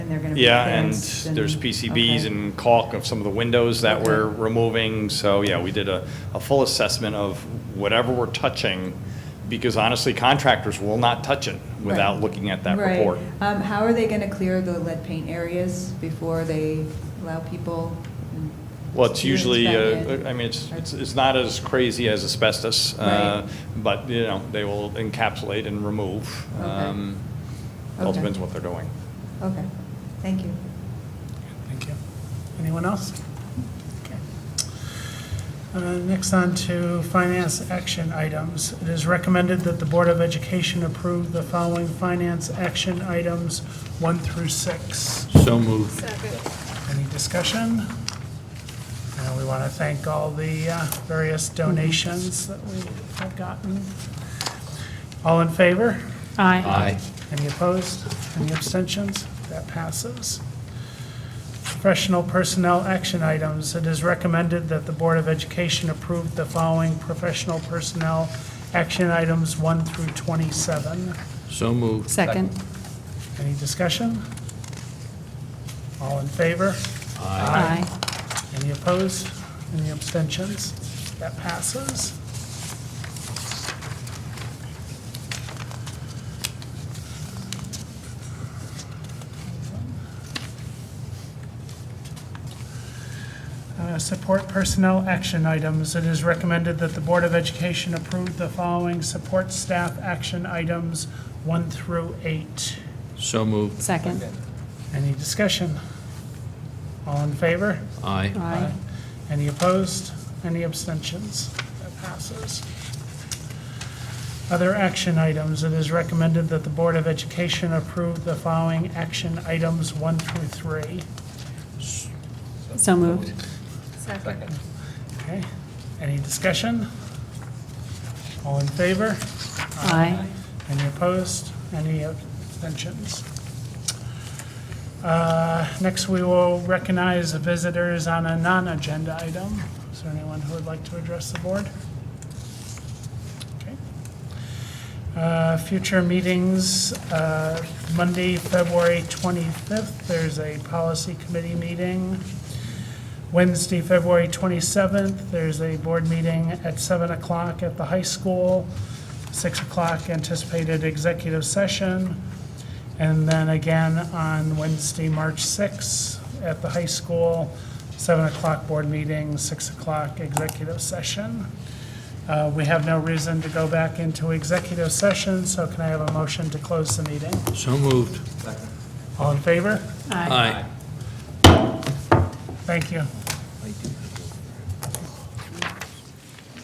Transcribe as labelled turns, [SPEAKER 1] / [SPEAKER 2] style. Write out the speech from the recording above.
[SPEAKER 1] they're gonna be
[SPEAKER 2] Yeah, and
[SPEAKER 1] fenced and.
[SPEAKER 2] there's PCBs
[SPEAKER 1] okay.
[SPEAKER 2] and caulk of some of the windows that we're removing, so, yeah, we did a, a full assessment of whatever we're touching, because honestly, contractors will not touch it without
[SPEAKER 1] Right.
[SPEAKER 2] looking at that
[SPEAKER 1] Right.
[SPEAKER 2] report.
[SPEAKER 1] Um, how are they gonna clear the lead paint areas before they allow people? and
[SPEAKER 2] Well, it's
[SPEAKER 1] students
[SPEAKER 2] usually,
[SPEAKER 1] back in?
[SPEAKER 2] uh, I mean, it's, it's it's not as crazy as asbestos, uh, but, you know, they will encapsulate and remove.
[SPEAKER 1] Okay.
[SPEAKER 2] Um, it All
[SPEAKER 1] Okay.
[SPEAKER 2] depends what they're doing.
[SPEAKER 1] Okay, thank you.
[SPEAKER 3] Thank you. Anyone else? Okay. Uh, Next on to finance action items. It is recommended that the Board of Education approve the following finance action items, one through six.
[SPEAKER 4] So moved.
[SPEAKER 3] Any discussion? And we want to thank all the uh, various donations that we have gotten. All in favor?
[SPEAKER 5] Aye.
[SPEAKER 4] Aye.
[SPEAKER 3] Any opposed? Any abstentions? That passes. Professional personnel action items. It is recommended that the Board of Education approve the following professional personnel action items 1 through 27.
[SPEAKER 4] So moved.
[SPEAKER 5] Second.
[SPEAKER 3] Any discussion? All in favor?
[SPEAKER 5] Aye.
[SPEAKER 3] Any opposed? Any abstentions? That passes. Uh, Support personnel action items. It is recommended that the Board of Education approve the following support staff action items, one through eight.
[SPEAKER 4] So moved.
[SPEAKER 5] Second.
[SPEAKER 3] Any discussion? All in favor?
[SPEAKER 4] Aye.
[SPEAKER 5] Aye.
[SPEAKER 3] Any opposed? Any abstentions? That passes. Other action items. It is recommended that the Board of Education approve the following action items one through three.
[SPEAKER 5] So moved.
[SPEAKER 3] Okay? Any discussion? All in favor?
[SPEAKER 5] Aye.
[SPEAKER 3] Any opposed? Any abstentions? Uh, Next, we will recognize the visitors on a non-agenda item. Is there anyone who would like to address the board? Okay. Uh, Future meetings, uh, Monday, February 25th, there's a policy committee meeting. Wednesday, February 27th, there's a board meeting at 7 o'clock at the high school, 6 o'clock anticipated executive session, and then again on Wednesday, March 6th, at the high school, 7 o'clock board meeting, 6 o'clock executive session. Uh, We have no reason to go back into executive session, so can I have a motion to close the meeting?
[SPEAKER 4] So moved.
[SPEAKER 3] All in favor?
[SPEAKER 4] Aye.
[SPEAKER 3] Thank you.